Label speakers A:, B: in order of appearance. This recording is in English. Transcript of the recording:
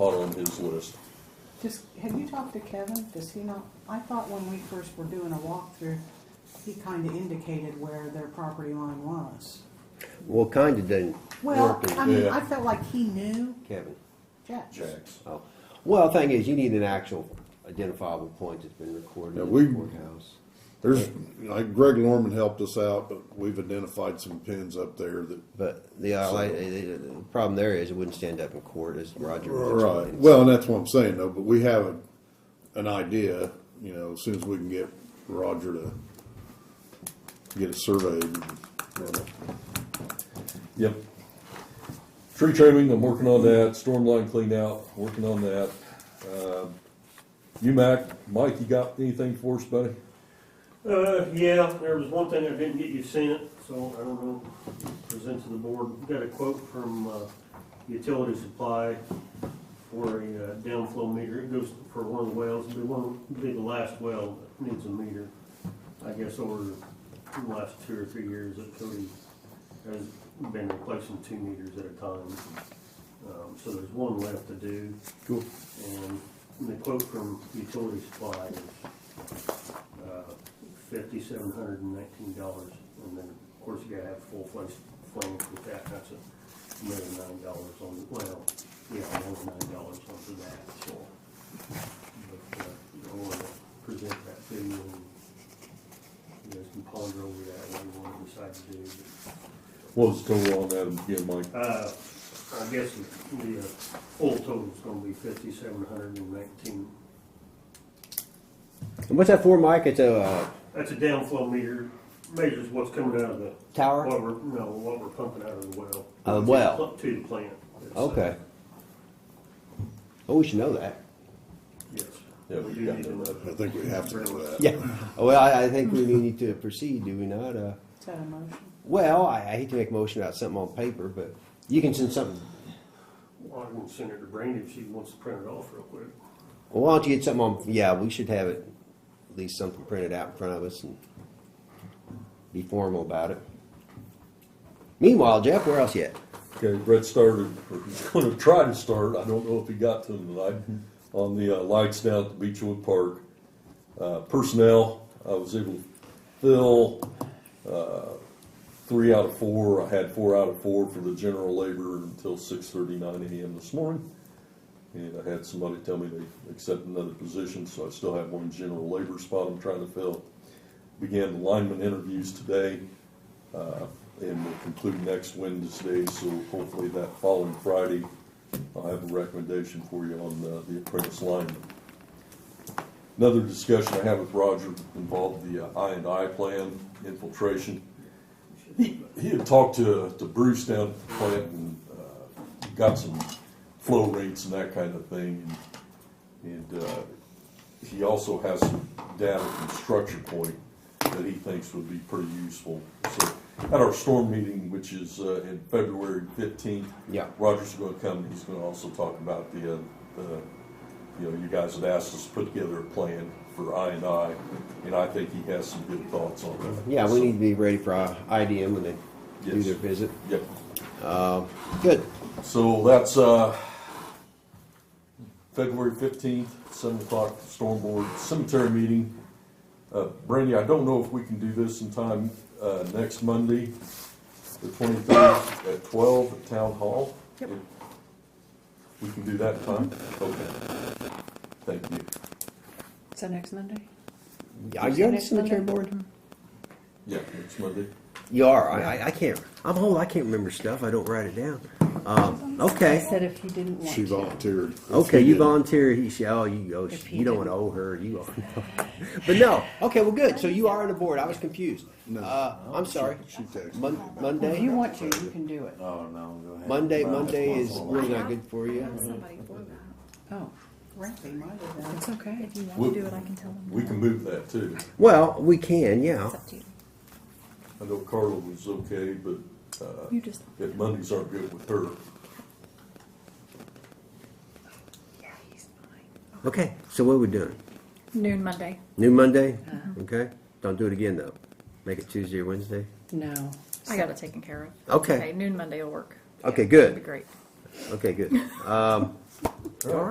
A: following his list.
B: Just, have you talked to Kevin? Does he not, I thought when we first were doing a walkthrough, he kinda indicated where their property line was.
C: Well, kinda didn't
B: Well,
C: work in
B: I mean,
A: yeah.
B: I felt like he knew
C: Kevin.
B: Jack's.
A: Jack's.
C: Oh, well, the thing is, you need an actual identifiable point that's been recorded
D: Yeah,
C: in
D: we-
C: the courthouse.
D: There's, like Greg Lorman helped us out, but we've identified some pins up there that.
C: But the, uh, like, the, the the problem there is it wouldn't stand up in court, as Roger was
D: Right,
C: explaining.
D: well, and that's what I'm saying though, but we have a- an idea, you know, as soon as we can get Roger to get it surveyed. and run it.
A: Yep. Tree trimming, I'm working on that, storm line clean out, working on that. Um, UMAC, Mike, you got anything for us, buddy?
E: Uh, yeah, there was one thing I didn't get you sent, so I don't know, present to the board. Got a quote from, uh, utility supply for a uh, downflow meter. It goes for one of the wells, it'll be one, it'll be the last well that needs a meter. I guess over the last two or three years, that Cody has been replacing two meters at a time. Um, so there's one left to do.
D: Cool.
E: And the quote from utility supply is fifty-seven hundred and nineteen dollars. And then, of course, you gotta have full flames, flames with that, that's a million nine dollars on, well, yeah, another nine dollars onto that, so. But, uh, I wanna present that to you, and you guys can ponder over that, what you wanna decide to do.
A: What was the total on that again, Mike?
E: Uh, I guess the, the uh, full total's gonna be fifty-seven hundred and nineteen.
C: And what's that for, Mike? It's a uh,
E: That's a downflow meter, measures what's coming out of the What
C: tower?
E: we're, no, what we're pumping out of the well.
C: Of the well.
E: To the plant. It's, uh,
C: Okay. Oh, we should know that.
E: Yes.
A: Yeah,
E: We
A: we
E: do
A: got
E: need to
A: that.
E: know.
D: I think we have to do that.
C: Yeah. Oh, Well, I, I think we need to proceed, do we not? Uh,
B: Is that a motion?
C: well, I, I hate to make a motion about something on paper, but you can send something.
E: Well, I can send her to Brandy if she wants to print it off real quick.
C: Well, why don't you get something on? Yeah, we should have it, at least something printed out in front of us and be formal about it. Meanwhile, Jeff, where else yet?
A: Okay, Brett started, or he's gonna try to start, I don't know if he got to them tonight, on the uh, lights down at the Beechwood Park. Uh, personnel, I was able to fill, uh, three out of four, I had four out of four for the general labor until six thirty-nine AM this morning. And I had somebody tell me they accept another position, so I still have one general labor spot I'm trying to fill. Began lineman interviews today uh, and will conclude next Wednesday, so hopefully that following Friday, I'll have a recommendation for you on uh, the apprentice lineman. Another discussion I have with Roger involved the uh, I and I plan infiltration. He, he had talked to, to Bruce down at the plant and, uh, got some flow rates and that kind of thing. And, and, uh, he also has some data from Structure Point that he thinks would be pretty useful. So at our storm meeting, which is uh, in February fifteenth.
C: Yeah.
A: Roger's gonna come, and he's gonna also talk about the, uh, the, you know, you guys had asked us to put together a plan for I and I, and I think he has some good thoughts on that.
C: Yeah, we
A: So-
C: need to be ready for our IDM when they do
A: Yes.
C: their visit.
A: Yep,
C: Good.
A: so that's, uh, February fifteenth, seven o'clock, Storm Board Cemetery meeting. Uh, Brandy, I don't know if we can do this in time, uh, next Monday, the twenty-third, at twelve at Town Hall.
B: Yep.
A: We can do that in time? Okay. Thank you.
F: So next Monday?
C: Are you on the
F: Next
C: cemetery
F: Monday?
C: board?
A: Yeah, next Monday.
C: You are. I, I- I can't. I'm old. I can't remember stuff. I don't write it down. Um,
F: I
C: okay.
F: said if you didn't want
D: She
F: to.
D: volunteered.
C: Okay, you
D: She did.
C: volunteer. He said, "Oh, you go.
F: If he
C: You don't want to owe her. You." Owe. but no. Okay. Well, good. So you are on the board. I was confused.
D: No.
C: Uh, I'm sorry.
D: She texted.
C: Mon-
B: Well, if
C: Monday.
B: you want to, you can do it.
G: Oh, no, go ahead.
C: Monday.
G: Well,
C: Monday
G: it's
C: is
G: one
C: really
G: forward.
C: not good for you.
H: somebody for that.
F: Oh,
B: Right, they might have done.
F: it's okay.
H: If you
A: Well,
H: want to do it, I can tell them.
A: We
H: no.
A: can move that too.
C: Well, we can. Yeah.
H: It's up to you.
A: I know Carla was okay, but, uh,
H: You just.
A: if Mondays aren't good with her,
H: Yeah, he's fine.
C: Okay. So what are we doing?
H: Noon Monday.
C: New Monday. Okay. Don't do it again though. Make it Tuesday or Wednesday.
F: No.
H: I got it taken care of.
C: Okay.
H: Noon Monday will work.
C: Okay,
H: Yeah,
C: good.
H: that'd Be great.
C: Okay. Good. Um,
A: All right.